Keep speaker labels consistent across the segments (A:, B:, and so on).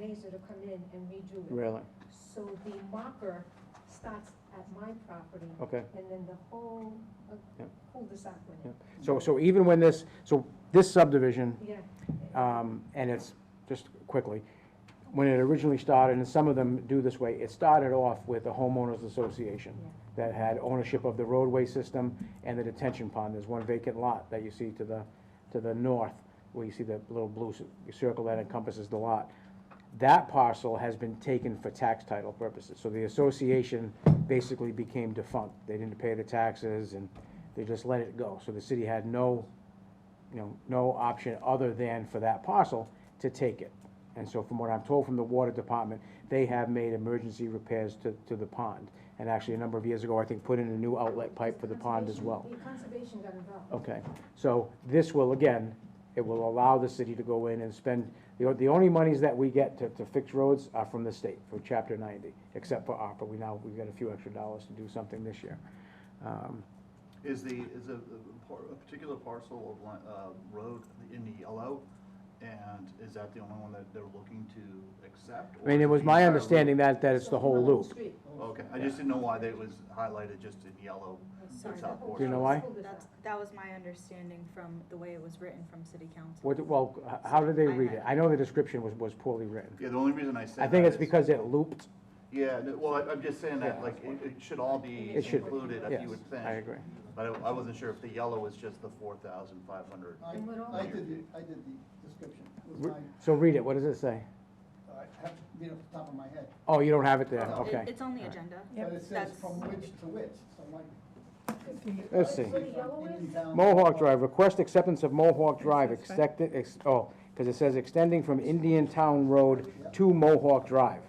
A: laser to come in and redo it.
B: Really?
A: So the marker starts at my property,
B: Okay.
A: and then the whole uh,
B: Yep.
A: cul-de-sac went in.
B: So, so even when this, so this subdivision,
A: Yeah.
B: um, and it's, just quickly, when it originally started, and some of them do this way, it started off with a homeowners association
A: Yeah.
B: that had ownership of the roadway system and the detention pond. There's one vacant lot that you see to the, to the north, where you see the little blue c- circle that encompasses the lot. That parcel has been taken for tax title purposes, so the association basically became defunct. They didn't pay the taxes, and they just let it go. So the city had no, you know, no option other than for that parcel to take it. And so from what I'm told from the water department, they have made emergency repairs to, to the pond. And actually, a number of years ago, I think, put in a new outlet pipe for the pond as well. Oh,
A: Conservation- Conservation got involved.
B: Okay, so this will, again, it will allow the city to go in and spend, the, o- the only monies that we get to, to fix roads are from the state, for chapter ninety, except for ARPA, we now, we've got a few extra dollars to do something this year. Um,
C: Is the, is a, a par- a particular parcel of, li- uh, road in the yellow? And is that the only one that they're looking to accept?
B: I mean, it was my understanding that, that it's
A: So
B: the whole
A: Mullen
B: loop.
A: Street.
C: Okay, I just didn't know why that was highlighted just in yellow.
A: Sorry,
C: South
A: the whole
B: Do you know why?
A: cul-de-sac.
D: That's, that was my understanding from the way it was written from city council.
B: What, well, h- how did they read it? I know the description was, was poorly written.
C: Yeah, the only reason I said
B: I think
C: that
B: it's
C: is-
B: because it looped,
C: Yeah, no, well, I- I'm just saying that,
B: Yeah.
C: like, it, it should all be
B: It should be,
C: included, if
B: yes,
C: you would think.
B: I agree.
C: But I, I wasn't sure if the yellow is just the four thousand five hundred.
E: I,
A: And what all-
E: I did, the- I did the description, it was
B: Re-
E: my,
B: So read it, what does it say?
E: I have to read off the top of my head.
B: Oh, you don't have it there,
E: No.
D: It-
B: okay.
D: It's on the agenda.
E: But it says
D: That's-
E: from which to which, so I'm like.
B: Let's see.
E: From Indian Town-
B: Mohawk Drive, request acceptance of Mohawk Drive, extended, ex, oh, because it says extending from Indian Town Road to Mohawk Drive.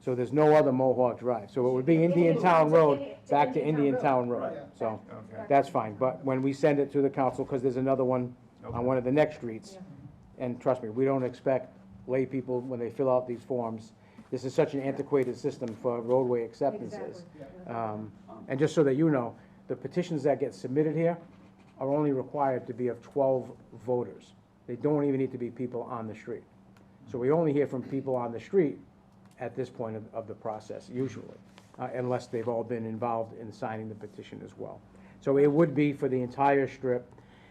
B: So there's no other Mohawk Drive, so it would be Indian Town Road back to Indian Town Road, so,
C: Okay.
B: that's fine, but when we send it to the council, because there's another one on one of the next streets, and trust me, we don't expect lay people when they fill out these forms, this is such an antiquated system for roadway acceptances.
A: Exactly.
B: Um, And just so that you know, the petitions that get submitted here are only required to be of 12 voters. They don't even need to be people on the street. So we only hear from people on the street at this point of, of the process, usually, uh, unless they've all been involved in signing the petition as well. So it would be for the entire strip,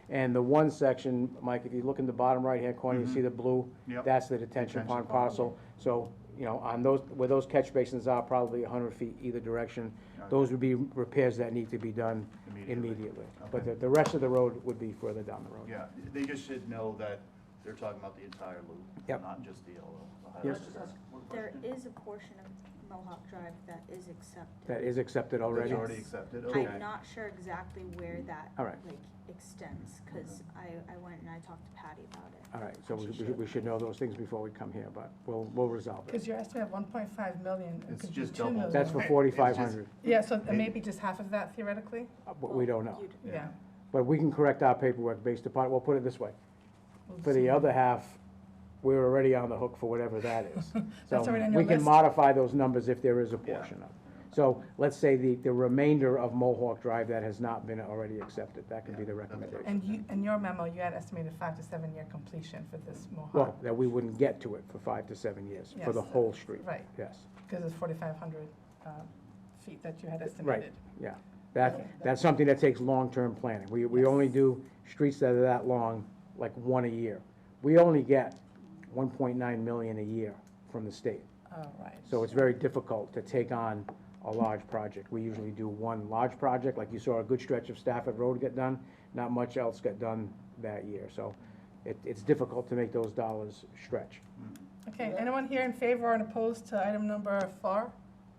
B: and the one section, Mike, if you look in the bottom right-hand corner, you see the blue?
C: Yep.
B: That's the Mm-hmm. detention
C: Detention
B: pond
C: pond.
B: parcel. So, you know, on those, where those catch basins are, probably 100 feet either direction,
C: Okay.
B: those would be repairs that need to be done
C: Immediately.
B: immediately. But
C: Okay.
B: the, the rest of the road would be further down the road.
C: Yeah, they just should know that they're talking about the entire
B: Yep.
C: loop, not just the yellow. the
B: Yes.
C: highlighted.
D: There is a portion of Mohawk Drive that is accepted.
B: That is accepted already?
C: It's already accepted, okay.
D: I'm not sure exactly where that,
B: All
D: like,
B: right. Mm-hmm.
D: extends, cause I, I went and I talked to Patty about it.
B: All right, so we, we should- we should know those things before we come here, but we'll, we'll resolve it.
F: Because your estimate of one point five million, it
C: It's
F: could be
C: just
F: two
C: double.
F: million.
B: That's for
C: Right,
B: forty-five
C: it's
B: hundred,
C: just-
F: Yeah, so
C: It-
F: maybe just half of that theoretically,
B: but we don't know.
D: You'd-
F: yeah.
B: But we can correct our paperwork based upon, we'll put it this way,
F: We'll
B: for the
F: see.
B: other half, we're already on the hook for whatever that is. So
F: already on
B: we
F: your
B: can
F: list.
B: modify those numbers if there is a portion of. it. So let's say the, the remainder of Mohawk Drive that has not been already accepted, that could be the
C: Yeah, that's right.
B: recommendation.
F: And you, in your memo, you had estimated five to seven year completion for this Mohawk,
B: Well, that we wouldn't get to it for five to seven years, for the
F: Yes.
B: whole street,
F: right,
B: yes.
F: because it's forty-five hundred, um, feet that you had
B: Right.
F: estimated.
B: Yeah, that, that's something that takes long-term planning. We, we only do streets that are that long, like one a year. We only get one point nine million a year from the state.
F: All right.
B: So it's very difficult to take on a large project. We usually do one large project, like you saw a good stretch of Stafford Road get done, not much else got done that year. So it, it's difficult to make those dollars stretch.
F: Okay, anyone here in favor or opposed to item number four?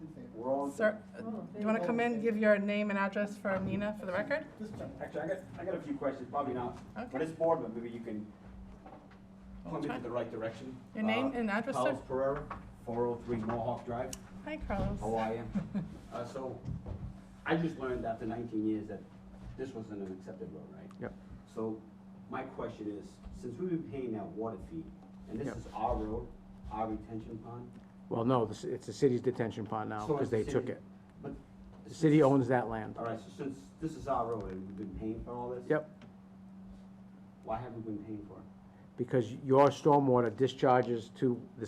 E: In favor.
G: We're all,
F: Sir, uh,
A: Oh,
F: you want to come in, give your name and address for Nina for the record?
E: This gentleman.
G: actually, I got, I got a few questions, probably not, for
F: Okay.
G: this board, but maybe you can point me
F: Okay.
G: to the right direction.
F: Your name
G: Uh,
F: and address, sir?
G: Carlos Pereira, four oh three Mohawk Drive,
F: Hi, Carlos.
G: how are you? Uh, so, I just learned after nineteen years that this wasn't an accepted road, right?
B: Yep.
G: So, my question is, since we've been paying that water fee, and this
B: Yep.
G: is our road, our retention pond.
B: Well, no, this- it's the city's detention pond now,
G: so
B: because
G: it's the
B: they took
G: city-
B: it.
G: But.
B: The city owns that land.
G: Alright, so since this is our road and we've been paying for all this?
B: Yep.
G: Why haven't we been paying for it?
B: because your stormwater discharges to the